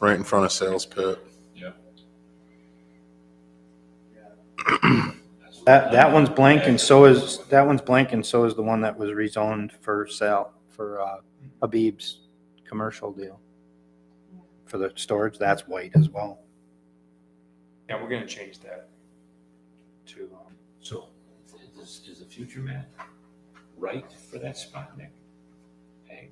right in front of Sales Pit. That, that one's blank and so is, that one's blank and so is the one that was rezoned for sale, for uh, Habib's commercial deal. For the storage, that's white as well. Yeah, we're gonna change that to, um, So is, is the future map right for that spot, Nick? Hey,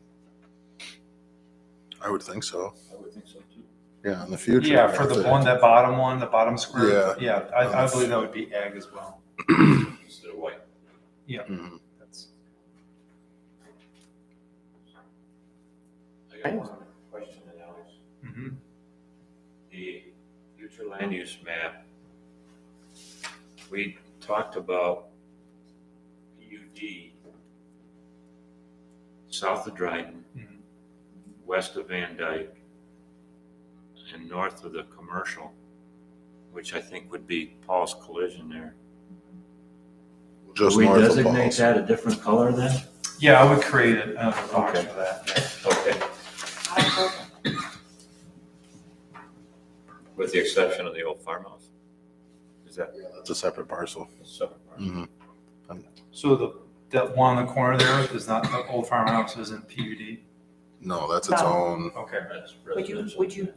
I would think so. I would think so too. Yeah, in the future. yeah, for if the they- one, that bottom one, the bottom square, Yeah. yeah, I, I believe that would be ag as well. Instead of white. Mhm. That's I got one other question, Alex. mhm. The future land use map, we talked about PUD south of Dryden, Mhm. west of Van Dyke, and north of the commercial, which I think would be Paul's collision there. Just we north of designate Paul's. that a different color then? Yeah, I would create it, another box Okay. for that. Okay. With the exception of the old farmhouse? Is that? It's a separate parcel. Mhm. So the, that one in the corner there is not, the old farmhouse isn't PUD, No, that's its No. own. okay. Would you, would you,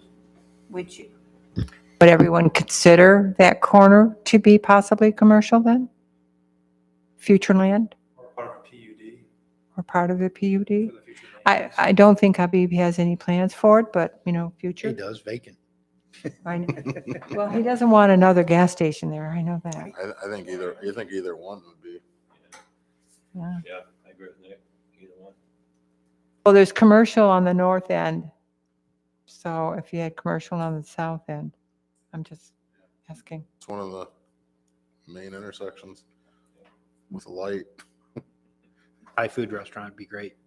would you? Would everyone consider that corner to be possibly commercial then? Future land Or part of a PUD or part of the PUD? for the future. land I, use. I don't think Habib has any plans for it, but, you know, He future. does vacant. I know. Well, he doesn't want another gas station there, I know that. I, I think either, I think either one would be. yeah. Yeah, I agree with Nick, either one. Well, there's commercial on the north end. So if you had commercial on the south end, I'm just asking. It's one of the main intersections with light. Thai food restaurant would be great.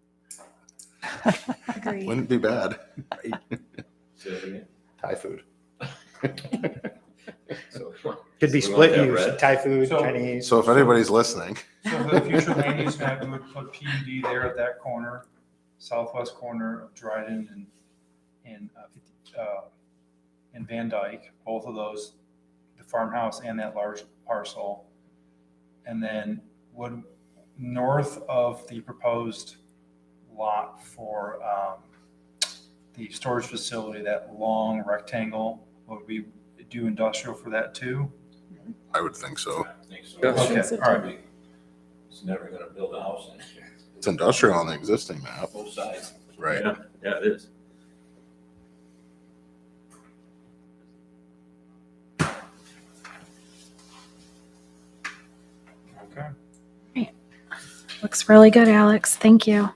Agreed. Wouldn't be bad. Say that again? Thai food. Could be So we want split that use, red? Thai food, So- Chinese. So if anybody's listening, So for the future land use map, we would put PUD there at that corner, southwest corner of Dryden and, and, uh, fifty- uh, and Van Dyke, both of those, the farmhouse and that large parcel. And then would, north of the proposed lot for, um, the storage facility, that long rectangle, would we do industrial for that too? I would think so. Okay, all right. It's never gonna build a house in here, It's industrial on the existing map, both sides. right? Yeah, yeah, it is. Okay. Looks really good, Alex. Thank you.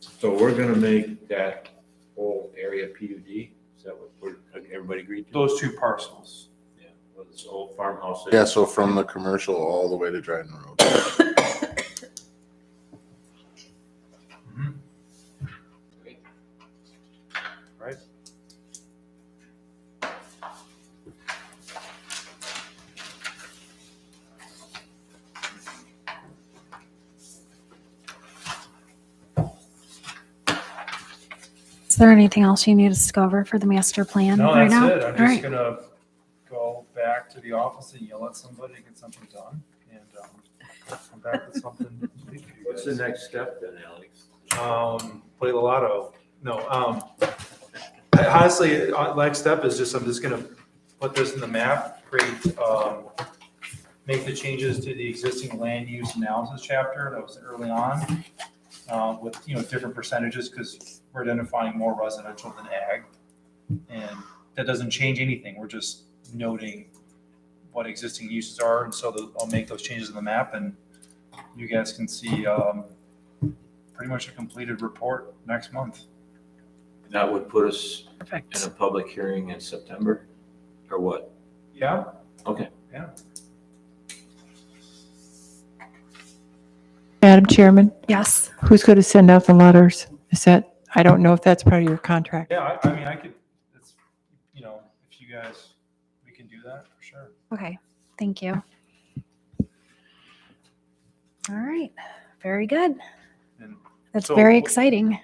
So we're gonna make that whole area PUD, is that what we're, everybody agreed to? Those two parcels. Yeah, Well, this old farmhouse. is- Yeah, so from the commercial all the way to Dryden Road. Mhm. Is there anything else you need us to discover for the master plan No, that's right now? it. I'm All just right. gonna go back to the office and yell at somebody to get something done and, um, come back with something. complete for you What's the guys. next step then, Alex? Um, play the lotto. No, um, I- honestly, uh, next step is just, I'm just gonna put this in the map, create, um, make the changes to the existing land use analysis chapter that was early on, uh, with, you know, different percentages, because we're identifying more residential than ag. And that doesn't change anything. We're just noting what existing uses are, and so the- I'll make those changes in the map, and you guys can see, um, pretty much a completed report next month. That would put us in Perfect. a public hearing in September, or what? Yeah. Madam Chairman, Yes. who's going to send out the letters? Is that, I don't know if that's part of your contract. Yeah, I, I mean, I could, it's, you know, if you guys, we can do that for sure. Okay. Thank you. All right. Very good. And That's So very what- exciting.